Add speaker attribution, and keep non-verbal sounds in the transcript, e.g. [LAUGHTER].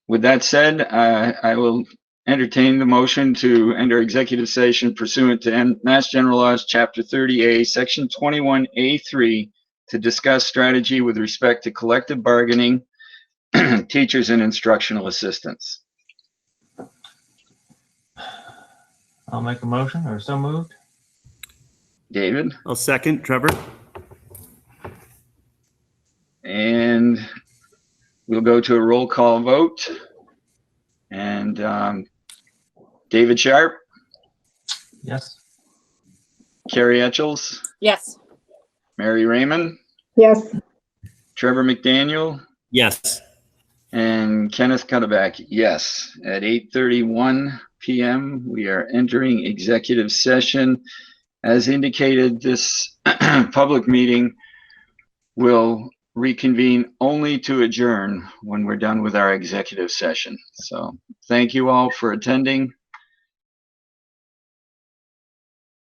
Speaker 1: With that said, uh, I will entertain the motion to enter executive session pursuant to M- Mass General Laws, Chapter 30A, Section 21A3, to discuss strategy with respect to collective bargaining, [CLEARS THROAT] teachers and instructional assistants.
Speaker 2: I'll make a motion or so moved.
Speaker 1: David?
Speaker 3: I'll second. Trevor?
Speaker 1: And we'll go to a roll call vote. And um, David Sharp,
Speaker 2: Yes.
Speaker 1: Carrie Etchels,
Speaker 4: Yes.
Speaker 1: Mary Raymond,
Speaker 5: Yes,
Speaker 1: Trevor McDaniel,
Speaker 3: Yes.
Speaker 1: and Kenneth Cuddaback. Yes, at 8:31 PM, we are entering executive session. As indicated, this [CLEARS THROAT] public meeting will reconvene only to adjourn when we're done with our executive session. So thank you all for attending